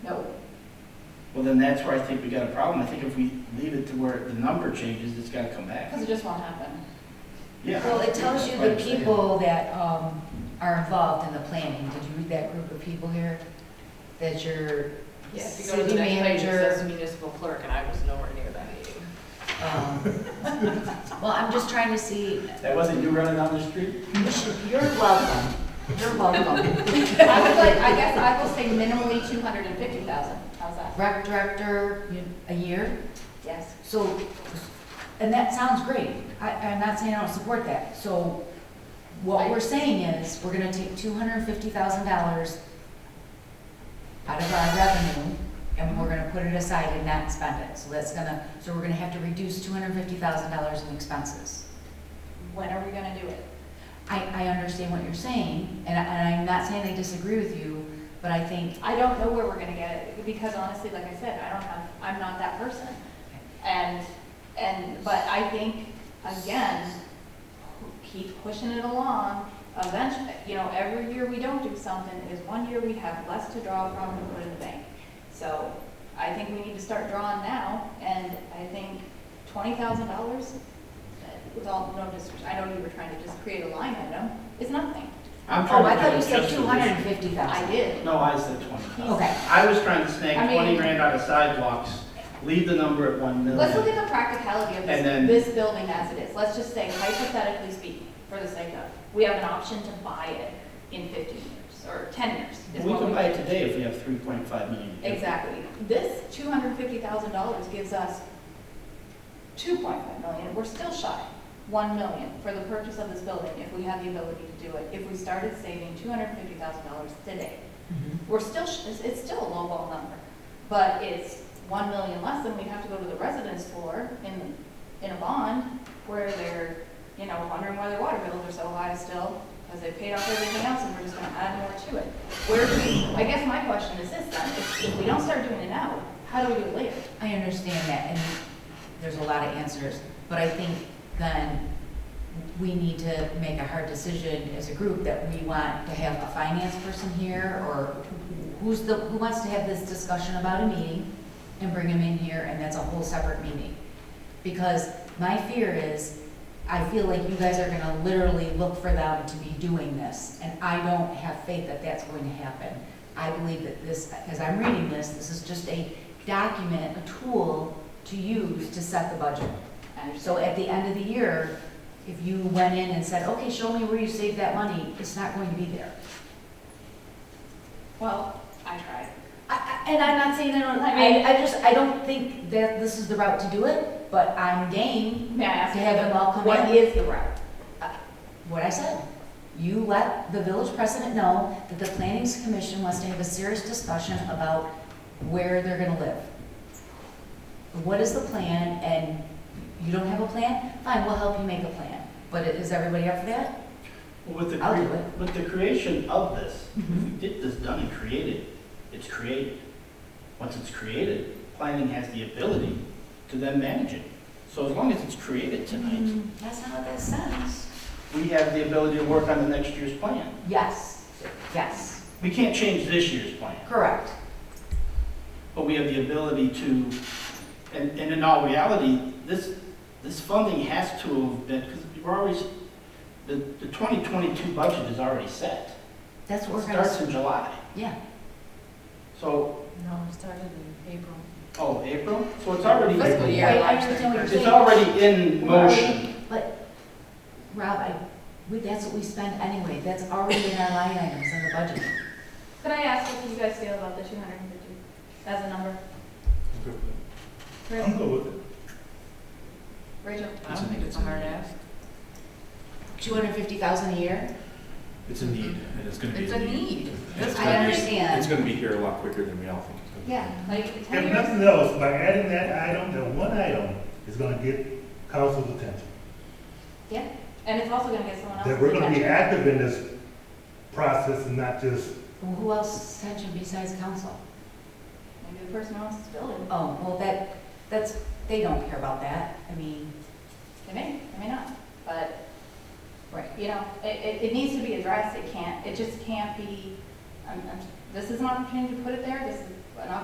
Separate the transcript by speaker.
Speaker 1: Well, then that's where I think we got a problem. I think if we leave it to where the number changes, it's gotta come back.
Speaker 2: Because it just won't happen.
Speaker 1: Yeah.
Speaker 3: Well, it tells you the
Speaker 1: That's what I'm saying.
Speaker 3: people that um, are involved in the planning. Did you read that group of people here? That your
Speaker 4: Yeah, if you go to
Speaker 3: city
Speaker 4: the next page, it says
Speaker 3: manager.
Speaker 4: municipal clerk, and I was nowhere near that meeting.
Speaker 3: um, Well, I'm just trying to see,
Speaker 1: That wasn't you running down the street?
Speaker 3: you should- you're welcome. You're welcome.
Speaker 2: I would like, I guess I will say minimally two hundred and fifty thousand, how's that?
Speaker 3: Rec director, you- a year?
Speaker 2: Yes.
Speaker 3: So, and that sounds great. I, I'm not saying I don't support that. So what we're saying is, we're gonna take two hundred and fifty thousand dollars out of our revenue, and we're gonna put it aside and not spend it. So that's gonna, so we're gonna have to reduce two hundred and fifty thousand dollars in expenses.
Speaker 2: When are we gonna do it?
Speaker 3: I, I understand what you're saying, and I, and I'm not saying I disagree with you, but I think,
Speaker 2: I don't know where we're gonna get it, because honestly, like I said, I don't have, I'm not that person. And, and, but I think, again, keep pushing it along. Eventually, you know, every year we don't do something is one year we have less to draw from to put in the bank. So I think we need to start drawing now, and I think twenty thousand dollars, with all, no, dis- I know you were trying to just create a line item, is nothing.
Speaker 1: I'm
Speaker 3: oh,
Speaker 1: trying to
Speaker 3: I thought
Speaker 1: get
Speaker 3: you said
Speaker 1: just a
Speaker 3: two hundred and fifty
Speaker 2: I
Speaker 3: thousand.
Speaker 2: did.
Speaker 1: reason. No, I said twenty thousand.
Speaker 3: Okay.
Speaker 1: I was trying to snag
Speaker 2: I mean-
Speaker 1: twenty grand out of sidewalks, leave the number at one million.
Speaker 2: Let's look at the practicality of
Speaker 1: And then-
Speaker 2: this, this building as it is. Let's just say hypothetically speaking, for the sake of, we have an option to buy it in fifteen years or ten years. is
Speaker 1: We
Speaker 2: what
Speaker 1: can buy it today if we have three point five million.
Speaker 2: Exactly. This two hundred fifty thousand dollars gives us two point five million. We're still shy, one million for the purchase of this building if we had the ability to do it. If we started saving two hundred fifty thousand dollars today, we're still, sh- it's, it's still a lowball number, but it's one million less than we have to go to the residents for in, in a bond where they're, you know, wondering why their water bills are so high still, because they paid off everything else and we're just gonna add more to it. Where do we, I guess my question is this then, if, if we don't start doing it now, how do we do it later?
Speaker 3: I understand that, and there's a lot of answers, but I think then we need to make a hard decision as a group that we want to have a finance person here, or who's the, who wants to have this discussion about a meeting, and bring him in here, and that's a whole separate meeting. Because my fear is, I feel like you guys are gonna literally look for them to be doing this, and I don't have faith that that's going to happen. I believe that this, as I'm reading this, this is just a document, a tool to use to set the budget.
Speaker 2: And
Speaker 3: So at the end of the year, if you went in and said, okay, show me where you saved that money, it's not going to be there.
Speaker 2: Well, I tried.
Speaker 3: I- I- And I'm not saying I don't, I, I just, I don't think that this is the route to do it, but I'm game,
Speaker 2: May I ask?
Speaker 3: To have them all come
Speaker 2: What
Speaker 3: in?
Speaker 2: is the route?
Speaker 3: what I said. You let the village president know that the planning commission wants to have a serious discussion about where they're gonna live. What is the plan, and you don't have a plan? Fine, we'll help you make a plan, but is everybody up for that?
Speaker 1: With the,
Speaker 3: I'll do
Speaker 1: cre-
Speaker 3: it.
Speaker 1: with the creation of this, if we
Speaker 3: Mhm.
Speaker 1: get this done and created, it's created. Once it's created, planning has the ability to then manage it. So as long as it's created tonight,
Speaker 3: Mm, That's not what that says. Mm-hmm.
Speaker 1: we have the ability to work on the next year's plan.
Speaker 3: Yes, yes,
Speaker 1: We can't change this year's plan,
Speaker 3: correct.
Speaker 1: but we have the ability to, and, and in all reality, this, this funding has to have been, because we're always, the, the 2022 budget is already set.
Speaker 3: That's what
Speaker 1: It
Speaker 3: we're gonna,
Speaker 1: starts
Speaker 3: s-
Speaker 1: in July.
Speaker 3: yeah.
Speaker 1: So,
Speaker 4: No, it started in April.
Speaker 1: oh, April? So it's already.
Speaker 4: Fiscal
Speaker 3: I-
Speaker 4: year.
Speaker 3: I understand what you're
Speaker 1: It's
Speaker 3: saying.
Speaker 1: already in
Speaker 3: We're already-
Speaker 1: motion.
Speaker 3: But, Rob, I, we, that's what we spend anyway, that's already in our line items in the budget.
Speaker 2: Could I ask what you guys feel about the two hundred and fifty as a number? Really? Rachel?
Speaker 4: I don't think it's a hard ask.
Speaker 3: Two hundred fifty thousand a year?
Speaker 5: It's a need, and it's gonna be
Speaker 4: It's
Speaker 5: a
Speaker 4: a
Speaker 5: need.
Speaker 4: need.
Speaker 5: It's
Speaker 3: I
Speaker 5: gonna be-
Speaker 3: understand.
Speaker 5: It's gonna be here a lot quicker than we all think it's gonna
Speaker 2: Yeah, like ten
Speaker 6: If
Speaker 2: years?
Speaker 6: nothing else, by adding that item, that one item is gonna get council's attention.
Speaker 2: Yeah, and it's also gonna get someone else's
Speaker 6: That we're gonna be
Speaker 2: attention.
Speaker 6: active in this process and not just,
Speaker 3: Well, Who else attention besides council?
Speaker 2: Maybe the person who owns this building,
Speaker 3: Oh, well, that, that's, they don't care about that, I mean,
Speaker 2: they may, they may not, but,
Speaker 3: right.
Speaker 2: you know, it, it, it needs to be addressed, it can't, it just can't be, um, um, this is an opportunity to put it there, this is an opportunity